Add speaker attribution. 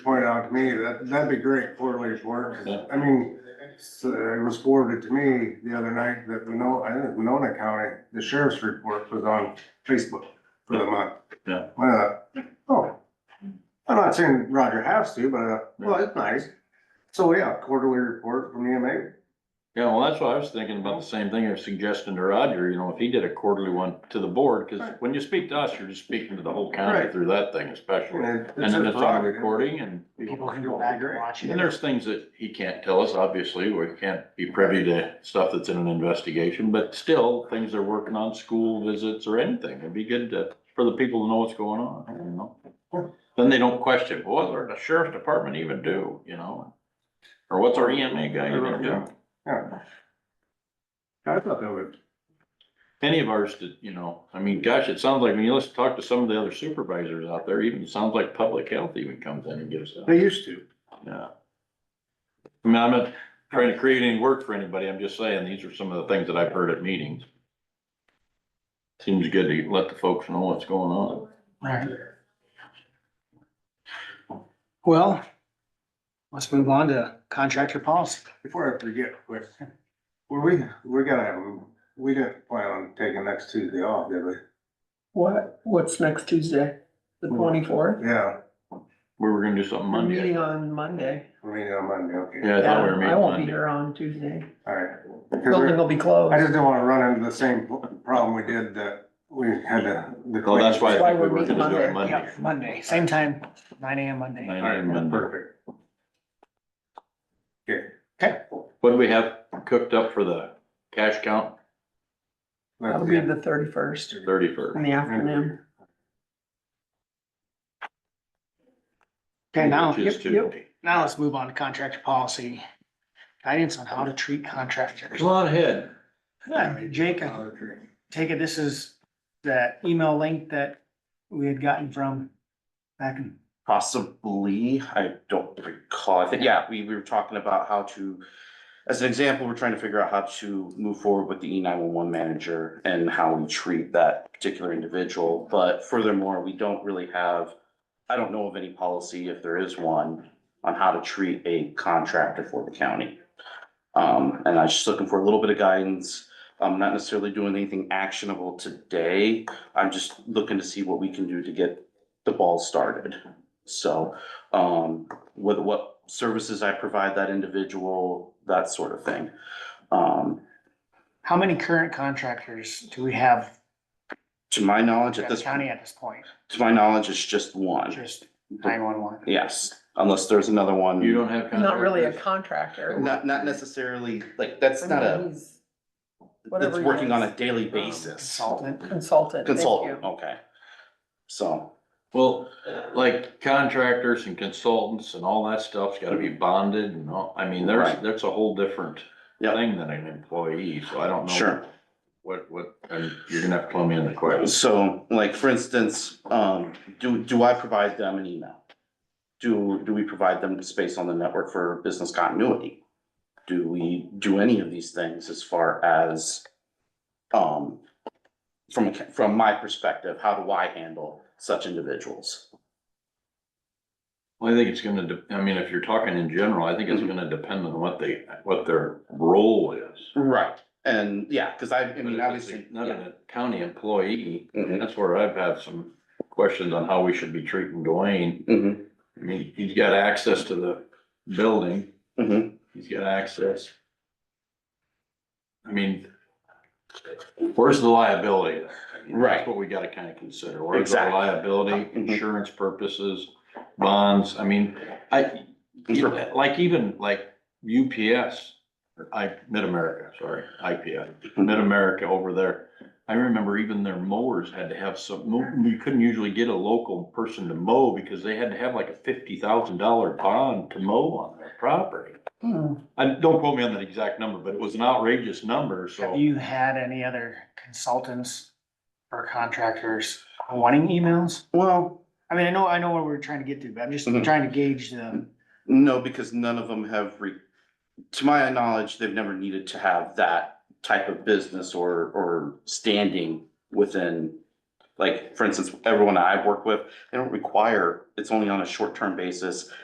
Speaker 1: out to me, that, that'd be great, quarterly's work.
Speaker 2: Yeah.
Speaker 1: I mean, so it was forwarded to me the other night that Winona, I think Winona County, the sheriff's report was on Facebook for the month.
Speaker 2: Yeah.
Speaker 1: Well, oh, I'm not saying Roger has to, but, uh, well, it's nice. So, yeah, quarterly report from E EMA.
Speaker 2: Yeah, well, that's what I was thinking about, the same thing I was suggesting to Roger, you know, if he did a quarterly one to the board, cause
Speaker 1: Right.
Speaker 2: when you speak to us, you're just speaking to the whole county
Speaker 1: Right.
Speaker 2: through that thing especially.
Speaker 1: And it-
Speaker 2: And then
Speaker 1: his
Speaker 2: it's on
Speaker 1: prerogative.
Speaker 2: recording and,
Speaker 3: People can go back and watch
Speaker 2: and
Speaker 3: it.
Speaker 2: there's things that he can't tell us, obviously, we can't be privy to stuff that's in an investigation, but still, things they're working on, school visits or anything, it'd be good to, for the people to know what's going on, you know? Then they don't question, what does the sheriff's department even do, you know? Or what's our EMA guy even do?
Speaker 1: Yeah. I thought that would,
Speaker 2: any of ours to, you know, I mean, gosh, it sounds like when you listen, talk to some of the other supervisors out there, even it sounds like public health even comes in and gives them,
Speaker 1: they used to.
Speaker 2: yeah. I mean, I'm not trying to create any work for anybody, I'm just saying, these are some of the things that I've heard at meetings. Seems good to let the folks know what's going on.
Speaker 3: Right. Well, let's move on to contractor policy.
Speaker 1: Before I forget, quick, were we, we're gonna have, we didn't plan on taking next Tuesday off, did we?
Speaker 4: What, what's next Tuesday? The twenty-fourth?
Speaker 1: Yeah,
Speaker 2: We were gonna do something
Speaker 4: We're meeting
Speaker 2: Hmm. Monday.
Speaker 4: on Monday.
Speaker 1: we meeting on Monday, okay,
Speaker 2: Yeah, I thought we were
Speaker 4: Yeah, I
Speaker 2: meeting
Speaker 4: won't be
Speaker 2: Monday.
Speaker 4: here on Tuesday.
Speaker 1: alright.
Speaker 4: Building will be
Speaker 1: I just
Speaker 4: closed.
Speaker 1: didn't wanna run into the same problem we did that we had to. the-
Speaker 2: Well, that's why I
Speaker 4: That's why
Speaker 2: think we
Speaker 4: we're
Speaker 2: were
Speaker 4: meeting
Speaker 2: gonna do it
Speaker 3: Yeah,
Speaker 2: Monday.
Speaker 3: Monday, same time, nine AM Monday.
Speaker 2: Nine
Speaker 1: Alright,
Speaker 2: AM Monday.
Speaker 1: perfect.
Speaker 2: What do we have cooked up for the cash count?
Speaker 4: That'll be the thirty-first
Speaker 2: Thirty-first.
Speaker 4: in the afternoon.
Speaker 3: Okay, now,
Speaker 2: Which is
Speaker 3: yep, yep.
Speaker 2: Tuesday.
Speaker 3: now let's move on to contractor policy. Guidance on how to treat contractors.
Speaker 2: Come on ahead.
Speaker 3: Yeah, Jake, I take it this is that email link that we had gotten from back in,
Speaker 5: Possibly, I don't recall, I think, yeah, we, we were talking about how to, as an example, we're trying to figure out how to move forward with the E nine one one manager and how we treat that particular individual, but furthermore, we don't really have, I don't know of any policy, if there is one, on how to treat a contractor for the county. Um, and I was just looking for a little bit of guidance, I'm not necessarily doing anything actionable today, I'm just looking to see what we can do to get the ball started. So, um, with what services I provide that individual, that sort of thing. Um,
Speaker 3: how many current contractors do we have
Speaker 5: to my knowledge,
Speaker 3: at
Speaker 5: at
Speaker 3: the
Speaker 5: this,
Speaker 3: county
Speaker 5: to
Speaker 3: at this point?
Speaker 5: my knowledge, it's just one.
Speaker 3: Just nine-one-one.
Speaker 5: Yes, unless there's another one.
Speaker 2: You don't have.
Speaker 4: Not really a
Speaker 2: contractors?
Speaker 4: contractor.
Speaker 5: Not, not necessarily, like, that's
Speaker 4: I
Speaker 5: not
Speaker 4: mean,
Speaker 5: a,
Speaker 4: he's
Speaker 5: that's
Speaker 4: whatever he
Speaker 5: working on
Speaker 4: is.
Speaker 5: a daily
Speaker 4: Um,
Speaker 5: basis.
Speaker 3: Consultant.
Speaker 4: Consultant. thank
Speaker 5: Consultant,
Speaker 4: you.
Speaker 5: okay. So,
Speaker 2: Well, like contractors and consultants and all that stuff's gotta be bonded and all, I mean, there's,
Speaker 5: Right.
Speaker 2: that's a whole different
Speaker 5: Yep.
Speaker 2: thing than an employee, so I don't know.
Speaker 5: sure.
Speaker 2: What, what, and you're gonna have to plumb in the questions.
Speaker 5: So, like, for instance, um, do, do I provide them an email? Do, do we provide them space on the network for business continuity? Do we do any of these things as far as, um, from, a ca- from my perspective, how do I handle such individuals?
Speaker 2: Well, I think it's gonna, de- I mean, if you're talking in general, I think it's
Speaker 3: Mm-hmm.
Speaker 2: gonna depend on what they, what their role is.
Speaker 5: Right. And, yeah, cause I, I
Speaker 2: But if
Speaker 5: mean,
Speaker 2: it's
Speaker 5: obviously.
Speaker 2: Not
Speaker 5: yeah.
Speaker 2: a county employee,
Speaker 5: Mhm,
Speaker 2: that's where I've had some questions on how we should be treating Dwayne.
Speaker 5: mhm,
Speaker 2: I mean, he's got access to the building.
Speaker 5: mhm.
Speaker 2: He's got access. I mean, where's the liability? there? I mean,
Speaker 5: Right.
Speaker 2: That's what we gotta kinda consider. Where's the
Speaker 5: Exactly.
Speaker 2: liability,
Speaker 5: Mhm.
Speaker 2: insurance purposes, bonds? I mean, I, you know, like even like UPS, or I, Mid-America, sorry, IPS, Mid-America over there. I remember even their mowers had to have some, mo- you couldn't usually get a local person to mow because they had to have like a fifty thousand dollar bond to mow on their property.
Speaker 4: Hmm.
Speaker 2: I, don't quote me on that exact number, but it was an outrageous number, so.
Speaker 3: Have you had any other consultants or contractors wanting emails?
Speaker 5: Well,
Speaker 3: I mean, I know, I know what we're trying to get to, but I'm just
Speaker 5: Mhm.
Speaker 3: trying to gauge the,
Speaker 5: No, because none of them have re, to my knowledge, they've never needed to have that type of business or, or standing within. Like, for instance, everyone I've worked with, they don't require, it's only on a short-term basis.